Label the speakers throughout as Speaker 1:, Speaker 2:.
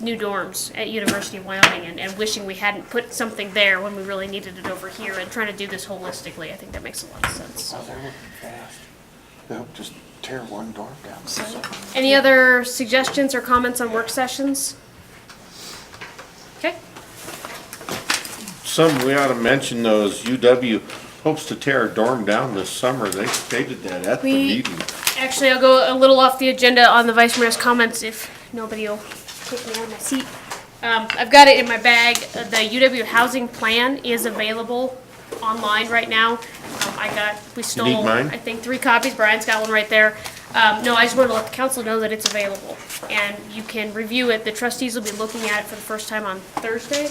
Speaker 1: new dorms at University of Wyoming and, and wishing we hadn't put something there when we really needed it over here and trying to do this holistically. I think that makes a lot of sense.
Speaker 2: Wow, they're looking fast. They'll just tear one door down.
Speaker 1: Any other suggestions or comments on work sessions? Okay,
Speaker 3: Something we ought to mention though is UW hopes to tear a dorm down this summer. They stated that at the
Speaker 1: We-
Speaker 3: meeting.
Speaker 1: actually, I'll go a little off the agenda on the vice mayor's comments if nobody will take me out of my seat. Um, I've got it in my bag. Uh, The UW housing plan is available online right now. Um, I got, we stole,
Speaker 3: need mine?
Speaker 1: I think, three copies. Brian's got one right there. Um, no, I just wanted to let the council know that it's available and you can review it. The trustees will be looking at it for the first time on Thursday.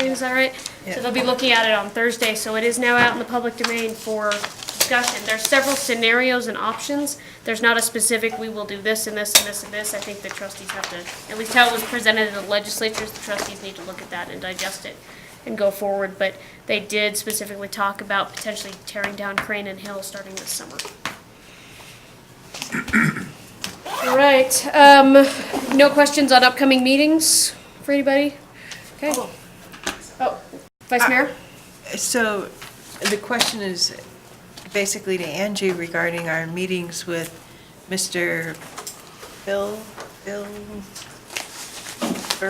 Speaker 1: Jane, is that right? So they'll be looking at it on Thursday, so it is now out in the public domain for discussion. There's several scenarios and options. There's not a specific, we will do this and this and this and this. I think the trustees have to, at least how it was presented in the legislatures, the trustees need to look at that and digest it and go forward. But they did specifically talk about potentially tearing down Crane and Hill starting this summer. All right, um, no questions on upcoming meetings for anybody? Okay. Oh, Vice Mayor?
Speaker 4: So the question is basically to Angie regarding our meetings with Mr. Bill, Bill?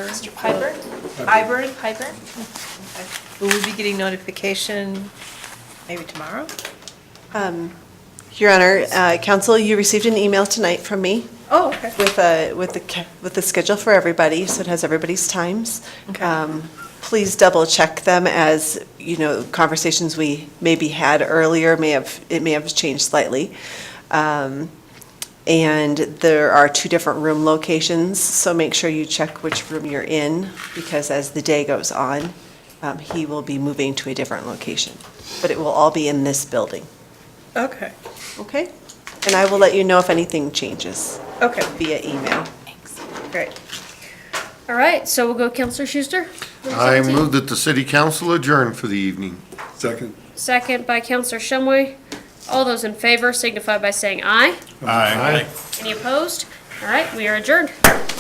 Speaker 4: Mr.
Speaker 5: Piper?
Speaker 4: Iber?
Speaker 5: Piper?
Speaker 4: Will we be getting notification maybe tomorrow?
Speaker 5: Your Honor, uh, counsel, you received an email tonight from me
Speaker 4: Oh, okay.
Speaker 5: with a, with the, ca- with the schedule for everybody, so it has everybody's times. Um, Please double-check them as, you know, conversations we maybe had earlier may have, it may have changed slightly. Um, And there are two different room locations, so make sure you check which room you're in, because as the day goes on, um, he will be moving to a different location. But it will all be in this building.
Speaker 4: Okay,
Speaker 5: Okay, and I will let you know if anything changes
Speaker 4: okay,
Speaker 5: via email.
Speaker 4: great.
Speaker 1: All right, so we'll go Counselor Schuster.
Speaker 3: I move that the city council adjourn for the evening.
Speaker 6: Second.
Speaker 1: Second by Counselor Shumway. All those in favor signify by saying aye.
Speaker 3: Aye.
Speaker 1: Any opposed? All right, we are adjourned.